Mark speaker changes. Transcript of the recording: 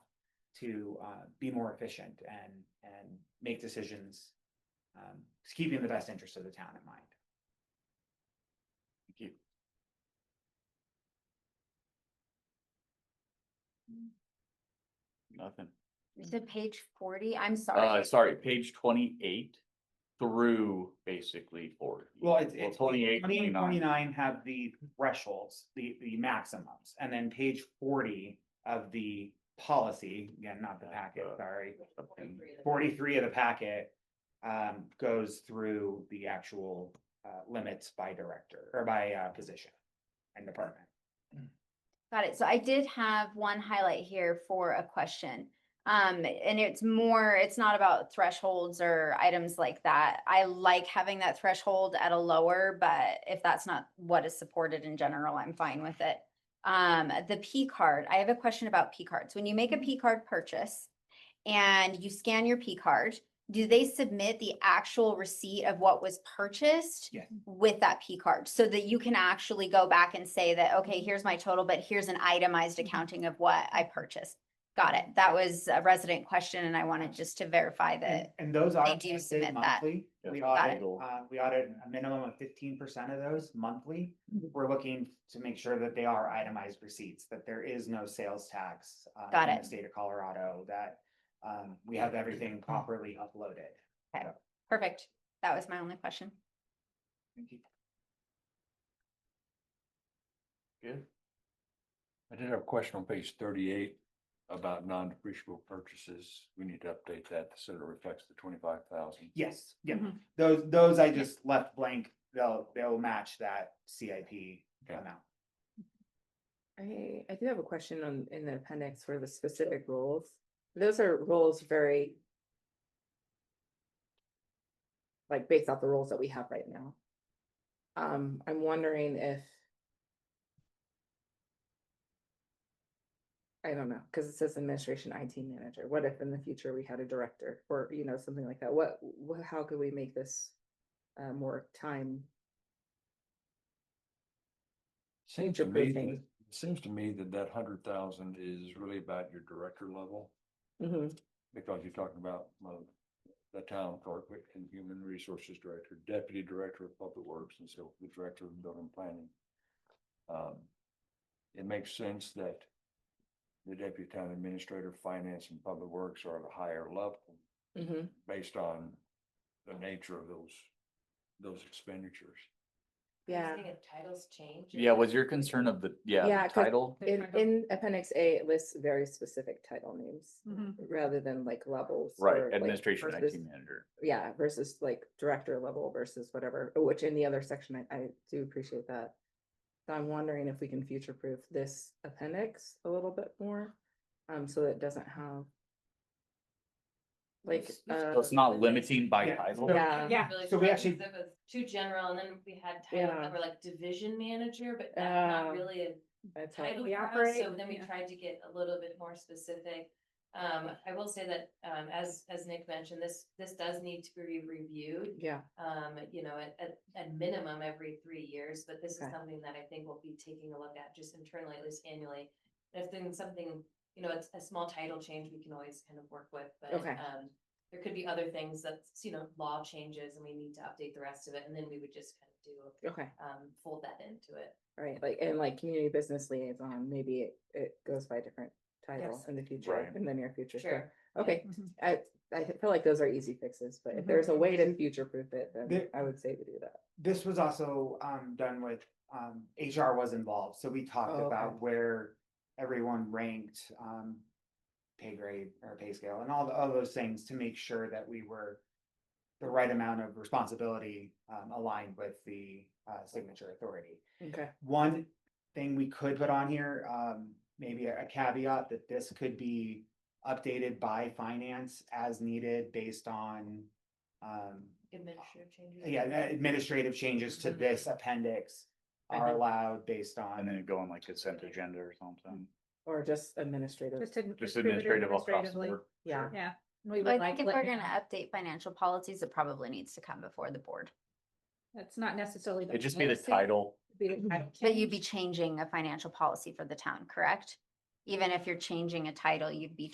Speaker 1: to uh be more efficient and and make decisions. Um, just keeping the best interest of the town in mind. Thank you.
Speaker 2: Nothing.
Speaker 3: Is it page forty? I'm
Speaker 2: Uh,
Speaker 4: Ah,
Speaker 3: sorry.
Speaker 2: sorry, page twenty-eight through basically forty.
Speaker 1: Well, it's it's
Speaker 2: Twenty-eight,
Speaker 1: twenty and
Speaker 2: twenty-nine.
Speaker 1: twenty-nine have the thresholds, the the maximums, and then page forty of the policy, again, not the packet,
Speaker 2: Uh,
Speaker 1: sorry.
Speaker 2: and
Speaker 1: Forty-three of the packet um goes through the actual uh limits by director or by uh position and department.
Speaker 3: Got it. So I did have one highlight here for a question. Um, and it's more, it's not about thresholds or items like that. I like having that threshold at a lower, but if that's not what is supported in general, I'm fine with it. Um, the P card, I have a question about P cards. When you make a P card purchase and you scan your P card, do they submit the actual receipt of what was purchased?
Speaker 1: Yes.
Speaker 3: With that P card, so that you can actually go back and say that, okay, here's my total, but here's an itemized accounting of what I purchased. Got it. That was a resident question and I wanted just to verify
Speaker 1: And
Speaker 3: that.
Speaker 1: and those audits
Speaker 3: do
Speaker 1: are
Speaker 3: submit
Speaker 1: did
Speaker 3: that.
Speaker 1: monthly.
Speaker 2: Yeah.
Speaker 1: We
Speaker 3: Got
Speaker 1: audit,
Speaker 2: it.
Speaker 1: uh, we audit a minimum of fifteen percent of those monthly.
Speaker 3: Mm-hmm.
Speaker 1: We're looking to make sure that they are itemized receipts, that there is no sales tax. uh,
Speaker 3: Got
Speaker 1: in
Speaker 3: it.
Speaker 1: The state of Colorado, that, um, we have everything
Speaker 2: Mm-hmm.
Speaker 1: properly uploaded.
Speaker 3: Perfect. That was my only question.
Speaker 1: Thank you.
Speaker 2: Good.
Speaker 4: I did have a question on page thirty-eight about non-depreciable purchases. We need to update that so that it reflects the twenty-five thousand.
Speaker 1: Yes, yeah,
Speaker 3: Mhm.
Speaker 1: those, those I just left blank, they'll, they'll match that CIP
Speaker 4: Okay.
Speaker 1: amount.
Speaker 5: I, I do have a question on, in the appendix for the specific roles. Those are roles very. Like based off the roles that we have right now. Um, I'm wondering if. I don't know, cause it says administration IT manager. What if in the future we had a director or, you know, something like that? What, wh- how could we make this? Uh, more time?
Speaker 4: Seems
Speaker 5: Future
Speaker 4: to me,
Speaker 5: proofing.
Speaker 4: that- seems to me that that hundred thousand is really about your director level,
Speaker 5: Mhm.
Speaker 4: because you're talking about well, the town clerk and human resources director, deputy director of public works, and so the director of building planning. Um, It makes sense that the deputy town administrator, finance and public works are at a higher level.
Speaker 5: mhm.
Speaker 4: based on the nature of those, those expenditures.
Speaker 5: Yeah.
Speaker 6: Titles change.
Speaker 2: Yeah, was your concern of the, yeah,
Speaker 5: Yeah,
Speaker 2: the
Speaker 5: 'cause
Speaker 2: title?
Speaker 5: In,
Speaker 6: Different.
Speaker 5: in appendix A, it lists very specific title names
Speaker 6: Mhm.
Speaker 5: rather than like levels.
Speaker 2: Right,
Speaker 5: or, like,
Speaker 2: administration IT
Speaker 5: versus-
Speaker 2: manager.
Speaker 5: Yeah, versus like director level versus whatever, which in the other section, I, I do appreciate that. So I'm wondering if we can future proof this appendix a little bit more, um, so that it doesn't have. Like,
Speaker 6: It's-
Speaker 5: uh,
Speaker 2: So it's not limiting by
Speaker 1: Yeah.
Speaker 2: title?
Speaker 1: So-
Speaker 5: yeah,
Speaker 6: Yeah. really
Speaker 1: So we
Speaker 6: strong,
Speaker 1: actually-
Speaker 6: 'cause It was too general and then we had titles
Speaker 5: Yeah.
Speaker 6: that were like division manager, but that's not
Speaker 5: Uh,
Speaker 6: really a
Speaker 5: that's how-
Speaker 6: title
Speaker 7: we
Speaker 6: for us,
Speaker 7: operate,
Speaker 6: So then we
Speaker 7: yeah.
Speaker 6: tried to get a little bit more specific. Um, I will say that, um, as, as Nick mentioned, this, this does need to be reviewed.
Speaker 5: yeah,
Speaker 6: um, you know, at, at, at minimum every three years, but this is
Speaker 5: Okay.
Speaker 6: something that I think we'll be taking a look at just internally, at least annually. If then something, you know, it's a small title change, we can always kind of work with, but,
Speaker 5: Okay.
Speaker 6: um, there could be other things that's, you know, law changes and we need to update the rest of it, and then we would just kind of do,
Speaker 5: okay.
Speaker 6: um, fold that into it.
Speaker 5: Right, like, and like community business liaison, maybe it, it goes by a different title
Speaker 6: Yes.
Speaker 5: in the future,
Speaker 2: Right.
Speaker 5: in the near future, sure. Mm-hmm.
Speaker 6: Sure.
Speaker 5: Okay, I, I feel like those are easy fixes, but if there's a way to future proof it, then
Speaker 1: There-
Speaker 5: I would say to do that.
Speaker 1: This was also um done with, um, HR was involved, so we talked
Speaker 5: Oh, okay.
Speaker 1: about where everyone ranked, um. Pay grade or pay scale and all the, all those things to make sure that we were. The right amount of responsibility, um, aligned with the, uh, signature authority.
Speaker 5: Okay.
Speaker 1: One thing we could put on here, um, maybe a caveat that this could be updated by finance as needed based on. Um,
Speaker 6: Administrative changes.
Speaker 1: yeah, the administrative changes to this appendix are
Speaker 5: Mhm.
Speaker 1: allowed based
Speaker 2: And then
Speaker 1: on,
Speaker 2: it go on like consent agenda or something,
Speaker 5: Or just administrative,
Speaker 7: Just to.
Speaker 2: just administrative across the
Speaker 7: administratively.
Speaker 2: board.
Speaker 5: yeah,
Speaker 7: Yeah. and we
Speaker 3: I
Speaker 7: would like
Speaker 3: think if
Speaker 7: let-
Speaker 3: we're gonna update financial policies, it probably needs to come before the board.
Speaker 7: That's not necessarily.
Speaker 2: It'd just be the
Speaker 7: policy,
Speaker 2: title.
Speaker 7: it'd be the title
Speaker 3: But you'd be
Speaker 7: change.
Speaker 3: changing a financial policy for the town, correct? Even if you're changing a title, you'd be